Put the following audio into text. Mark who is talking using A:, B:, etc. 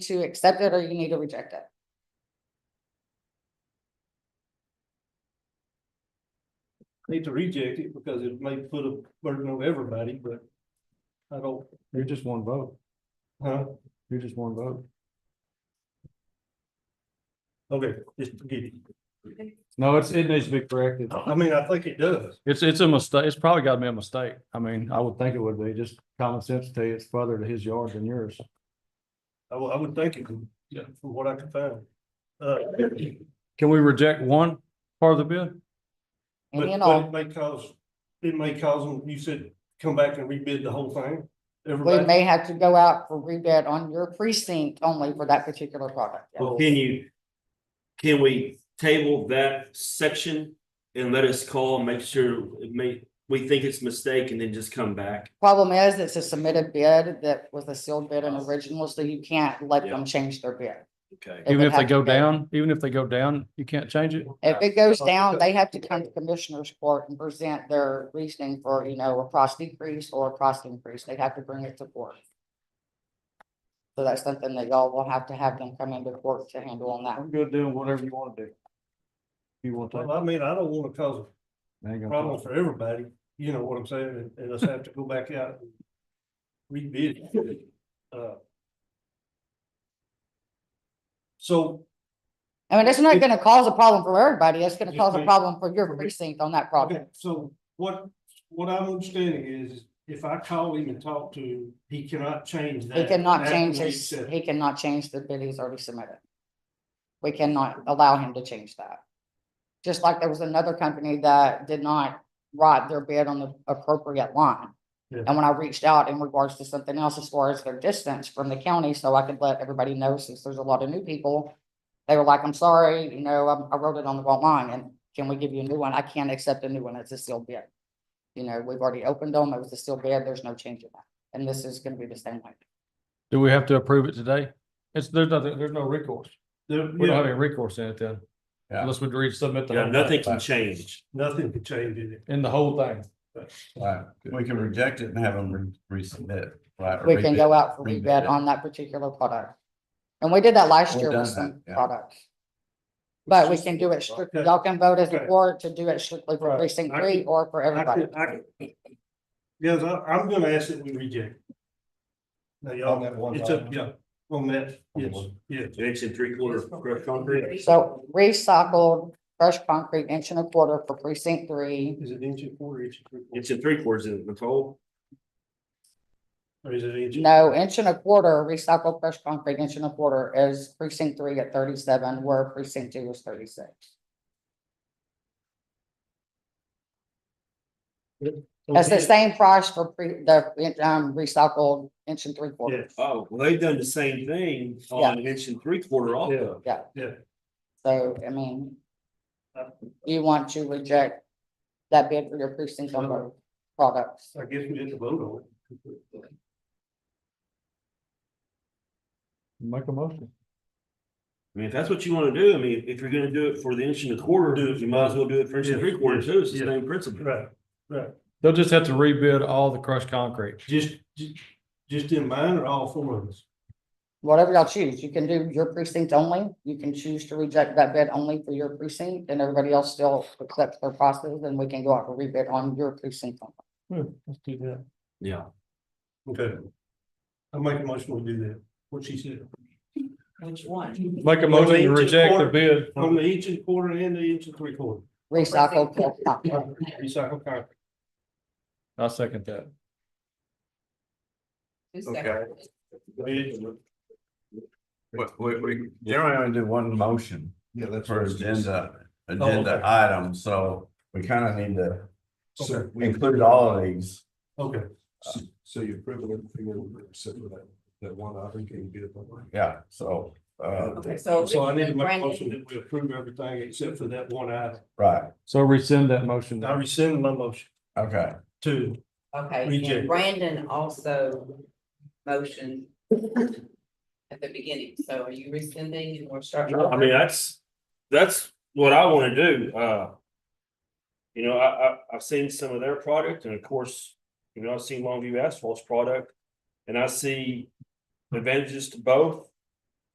A: to accept it or you need to reject it.
B: need to reject it because it may put a burden on everybody, but I don't,
C: You're just one vote.
B: huh?
C: You're just one vote.
B: Okay, just forget it.
C: No, it's, it needs to be corrected.
B: I mean, I think it does.
C: It's, it's a mistake. It's probably gotta be a mistake. I mean, I would think it would be just common sense to you. It's further to his yard than yours.
B: I would, I would think it, would, yeah, from what I can find. Uh, but,
C: Can we reject one part of the bid?
A: Any and
B: but it
A: all,
B: may cause, it may cause them, you said, come back and rebid the whole thing.
A: we
B: Everybody,
A: may have to go out for rebid on your precinct only for that particular product. yeah.
D: Well, can you, can we table that section and let us call and make sure it may, we think it's a mistake and then just come back?
A: Problem is, it's a submitted bid that was a sealed bid and original, so you can't let them change their bid.
D: Okay.
A: It
C: Even
A: would
C: if they
A: have to
C: go
A: be.
C: down, even if they go down, you can't change it?
A: If it goes down, they have to come to commissioner's court and present their reasoning for, you know, a cost decrease or a cost increase. They have to bring it to court. So that's something that y'all will have to have them come into court to handle on that.
C: I'm good doing whatever you wanna do. You want
B: well,
C: to.
B: I mean, I don't wanna cause a problem for everybody, you know what I'm saying, and, and us have to go back out and rebid it. Uh, So
A: I mean, it's not gonna cause a problem for everybody. It's gonna
B: Just
A: cause a
B: make-
A: problem for your precinct on that project.
B: Okay, so what, what I'm understanding is if I call him and talk to him, he cannot change that.
A: He cannot
B: That
A: change
B: we
A: his,
B: said.
A: he cannot change the bid he's already submitted. We cannot allow him to change that. Just like there was another company that did not write their bid on the appropriate line.
B: Yeah.
A: And when I reached out in regards to something else as far as their distance from the county, so I could let everybody know since there's a lot of new people. They were like, I'm sorry, you know, I- I wrote it on the wrong line and can we give you a new one? I can't accept a new one. It's a sealed bid. You know, we've already opened them. It was a sealed bid. There's no change in that. And this is gonna be the same way.
C: Do we have to approve it today? It's, there's nothing, there's no recourse.
B: There-
C: We don't have
B: yeah,
C: any recourse in it then.
E: Yeah.
C: Unless we resubmit the.
D: Yeah,
C: whole thing.
D: nothing can change.
B: nothing could change it.
C: In the whole thing.
E: Right, we can reject it and have them re- resubmit. right, or
A: we can go
E: rebid.
A: out for
E: rebid
A: rebid
E: it.
A: on that particular product. And we did that last
E: We've
A: year
E: done
A: with some
E: that, yeah.
A: products. But we can do it strictly,
B: Okay.
A: y'all can vote as a
B: Okay.
A: board to do it strictly for
B: Right.
A: precinct
B: I
A: three
B: could-
A: or for
B: I
A: everybody.
B: could, I could. Yes, I, I'm gonna ask that we reject. it. Now,
C: On that
B: y'all,
C: one
B: it's up,
C: line.
B: yeah, on that, yes, yeah.
D: Inch and three quarter crushed concrete.
A: So recycled fresh concrete inch and a quarter for precinct three.
B: Is it inch and quarter inch? and three quarter?
D: Inch and three quarters, isn't it, Nicole?
B: Or is it inch? and-
A: No, inch and a quarter, recycled fresh concrete inch and a quarter is precinct three at thirty-seven, where precinct two is thirty-six. That's the same price for pre, the, um, recycled inch and three quarter.
B: Yes,
D: Oh, well, they've done the same thing on inch and three quarter also.
A: So, I mean.
B: Uh,
A: Do you want to reject that bid for your precinct on both products?
B: I guess we didn't vote on it.
C: Make a motion.
D: I mean, if that's what you wanna do, I mean, if you're gonna do it for the inch and a quarter,
B: Do it.
D: you might as well do it for inch and
B: Yeah,
D: three quarters too. It's the
B: yeah.
D: same principle.
B: Right, right.
C: They'll just have to rebid all the crushed concrete.
B: Just, ju- just in mind or all four of us?
A: Whatever y'all choose, you can do your precinct only, you can choose to reject that bid only for your precinct, and everybody else still accepts their prices, and we can go out for rebid on your precinct. only.
C: Hmm, Let's do that.
D: Yeah.
B: Okay. I make a motion we do that, what she said.
C: Make a motion to reject the bid.
B: From the inch and quarter and the inch and three quarter.
A: Recycled. fresh concrete.
B: Recycle concrete.
C: I second that.
B: Okay.
E: But we, we, generally only do one motion for agenda,
B: Oh,
E: agenda
B: okay.
E: item, so we kind of need to
B: Okay.
E: include all of these.
B: Okay,
F: So you approve it, everything except for that, that one item, can you get it? online?
E: Yeah, so, uh,
G: Okay, so.
B: so I need to make a
G: Brandon-
B: motion that we approve everything except for that one item.
E: right,
C: So rescind that motion.
B: I rescind my motion
E: okay.
B: to,
G: Okay,
B: Reject.
G: and Brandon also motioned at the beginning, so are you rescinding and we're starting?
D: No, I mean, that's, that's what I wanna do, uh. You know, I, I, I've seen some of their product and of course, you know, I've seen Longview Asphalt's product. And I see advantages to both.